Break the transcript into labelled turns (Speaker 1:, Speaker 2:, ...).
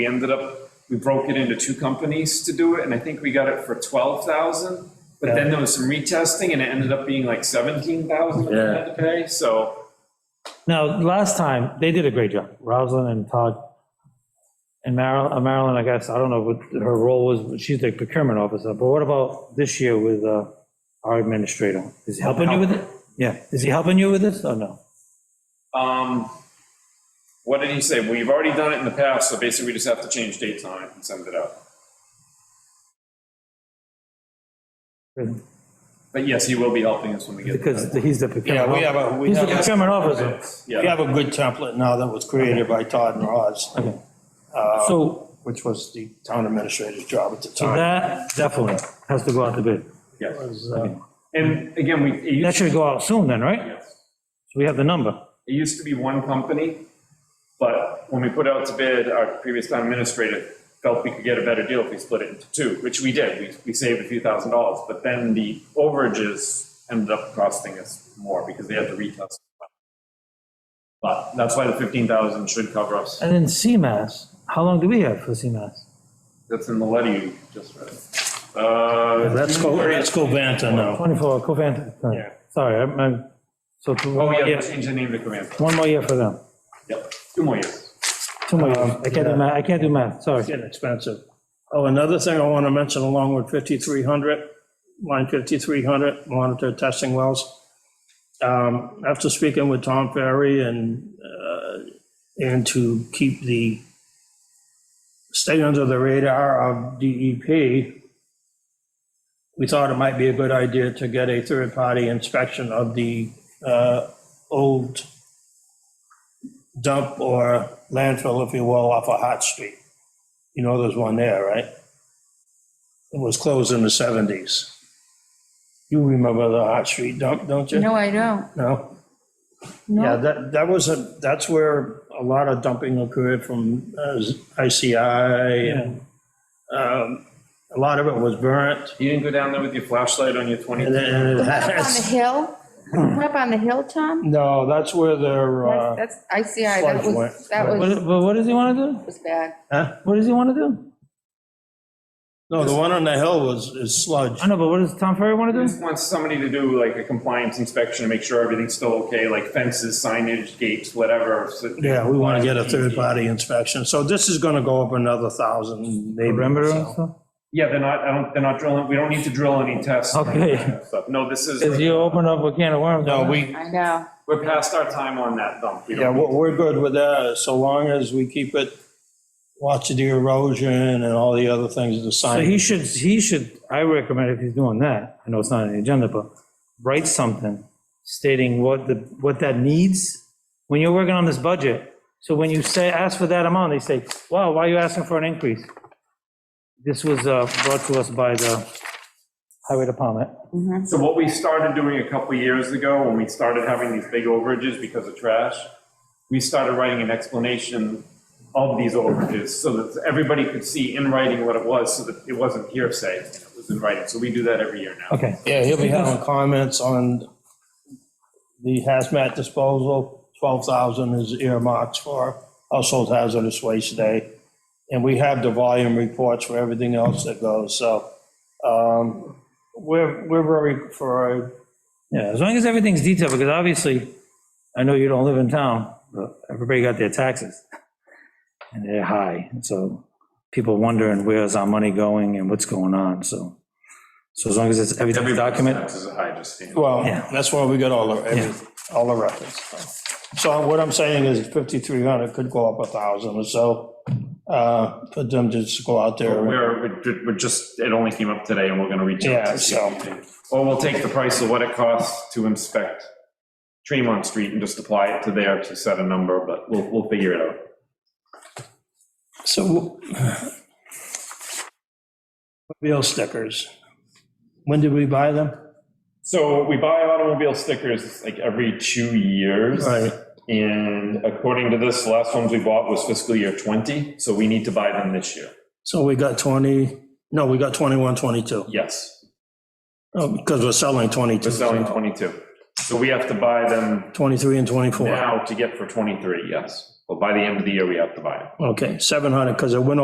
Speaker 1: We ended up, we broke it into two companies to do it, and I think we got it for twelve thousand. But then there was some retesting, and it ended up being like seventeen thousand we
Speaker 2: Yeah.
Speaker 1: had to pay, so.
Speaker 3: Now, last time, they did a great job, Rosalind and Todd. And Marilyn, Marilyn, I guess, I don't know what her role was, but she's the procurement officer, but what about this year with uh, our administrator? Is he helping you with it? Yeah, is he helping you with this or no?
Speaker 1: Um, what did he say? We've already done it in the past, so basically we just have to change dates on it and send it out. But yes, he will be helping us when we get. it.
Speaker 3: Because he's the procurement.
Speaker 4: Yeah, we have a-
Speaker 3: officer.
Speaker 4: we
Speaker 3: He's the
Speaker 4: have a-
Speaker 3: procurement officer.
Speaker 4: We
Speaker 1: Yeah,
Speaker 4: have a good template now that was created by Todd and Roz,
Speaker 3: Okay.
Speaker 4: Uh,
Speaker 3: So
Speaker 4: which was the town administrator's job at the
Speaker 3: so
Speaker 4: time.
Speaker 3: that definitely has to go out to bid.
Speaker 1: yeah.
Speaker 4: Was, uh,
Speaker 1: And again, we, it
Speaker 3: That
Speaker 1: used,
Speaker 3: should go out soon then, right?
Speaker 1: yes.
Speaker 3: So we have the number.
Speaker 1: It used to be one company, but when we put out to bid, our previous town administrator felt we could get a better deal if we split it into two, which we did. We, we saved a few thousand dollars, but then the overages ended up costing us more because they had to retest. But that's why the fifteen thousand should cover us.
Speaker 3: And then CMAS, how long do we have for CMAS?
Speaker 1: That's in the letter you just read. Uh,
Speaker 4: Let's go, let's go Vanta now.
Speaker 3: 24, Covanta,
Speaker 1: Yeah.
Speaker 3: sorry, sorry, I'm, I'm- so two
Speaker 1: oh,
Speaker 3: more
Speaker 1: yeah,
Speaker 3: years,
Speaker 1: change the name of the command.
Speaker 3: one more year for them,
Speaker 1: Yep, two more years.
Speaker 3: two more years,
Speaker 4: Um,
Speaker 3: I can't do
Speaker 4: yeah.
Speaker 3: math, I can't do math, sorry.
Speaker 4: It's getting expensive. Oh, another thing I want to mention along with 5300, line 5300, monitor testing wells. Um, After speaking with Tom Ferry and, uh, and to keep the, stay under the radar of E DEP, we thought it might be a good idea to get a third-party inspection of the uh, old dump or landfill, if you will, off of Hot Street. You know there's one there, right? It was closed in the 70s. You remember the Hot Street dump, don't you?
Speaker 5: No, I don't.
Speaker 4: No? Yeah,
Speaker 5: No,
Speaker 4: that, that was a, that's where a lot of dumping occurred from uh, ICI. and um, A lot of it was burnt
Speaker 1: You didn't go down there with your flashlight on your twenty?
Speaker 4: and then and it
Speaker 5: up on the
Speaker 4: has,
Speaker 5: hill, up on the hill, Tom?
Speaker 4: no, that's where their,
Speaker 5: That's,
Speaker 4: uh,
Speaker 5: that's- I see, I, that
Speaker 4: sludge
Speaker 5: was,
Speaker 4: went-
Speaker 5: that
Speaker 3: What,
Speaker 5: was,
Speaker 3: but what does he want to do?
Speaker 5: was bad.
Speaker 4: huh?
Speaker 3: What does he want to do?
Speaker 4: no, the one on the hill was, is sludge.
Speaker 3: I know, but what does Tom Ferry want to do?
Speaker 1: Just wants somebody to do like a compliance inspection to make sure everything's still okay, like fences, signage, gates, whatever. so-
Speaker 4: Yeah, we want to get a third-party inspection. So this is going to go up another thousand, maybe.
Speaker 3: Perimeter and
Speaker 4: so.
Speaker 3: stuff?
Speaker 1: Yeah, they're not, I don't, they're not drilling, we don't need to drill any tests. or any
Speaker 3: Okay.
Speaker 1: of that stuff. No, this
Speaker 3: Because you
Speaker 1: is,
Speaker 3: open up a can of worms.
Speaker 4: No, we,
Speaker 5: I know.
Speaker 1: we're past our time on that dump. We
Speaker 4: yeah,
Speaker 1: don't-
Speaker 4: we're, we're good with that, so long as we keep it, watch the erosion and all the other things, the
Speaker 3: So
Speaker 4: sign.
Speaker 3: he should, he should, I recommend if he's doing that, I know it's not on the agenda, but write something stating what the, what that needs when you're working on this budget. So when you say, ask for that amount, they say, wow, why are you asking for an increase? This was uh, brought to us by the highway department.
Speaker 1: So what we started doing a couple years ago, when we started having these big overages because of trash, we started writing an explanation of these overages so that everybody could see in writing what it was, so that it wasn't hearsay, it was in writing. So we do that every year now.
Speaker 3: Okay,
Speaker 4: Yeah, he'll be having comments on the hazmat disposal, twelve thousand is earmarked for household hazardous waste day. And we have the volume reports for everything else that goes, so, um, we're, we're very, for a
Speaker 3: yeah, as long as everything's detailed, because obviously, I know you don't live in town, but everybody got their taxes. And they're high, and so people wondering where's our money going and what's going on, so. So as long as it's, everything's documented,
Speaker 1: Taxes are high, just standard.
Speaker 4: Well,
Speaker 3: Yeah.
Speaker 4: that's why we got all the, every- all the records. So what I'm saying is 5,300 could go up a 1,000 or so, uh, for them to just go out there.
Speaker 1: We're, we're ju- we're just, it only came up today and we're gonna reach out.
Speaker 4: Yeah,
Speaker 1: to see if
Speaker 4: so-
Speaker 1: we can- Or we'll take the price of what it costs to inspect Tremont Street and just apply it to there to set a number, but we'll, we'll figure it out.
Speaker 4: So uh, wheel stickers, when did we buy them?
Speaker 1: So we buy automobile stickers like every two years.
Speaker 4: Right.
Speaker 1: And according to this, the last ones we bought was fiscal year 20, so we need to buy them this year.
Speaker 4: So we got 20, no, we got 21, 22,
Speaker 1: Yes,
Speaker 4: Oh, because we're selling
Speaker 1: we're
Speaker 4: 22,
Speaker 1: selling 22. So we have to buy them
Speaker 4: 23 and 24.
Speaker 1: now to get for 23, yes. But by the end of the year, we have to buy it.
Speaker 4: Okay, 700, because it went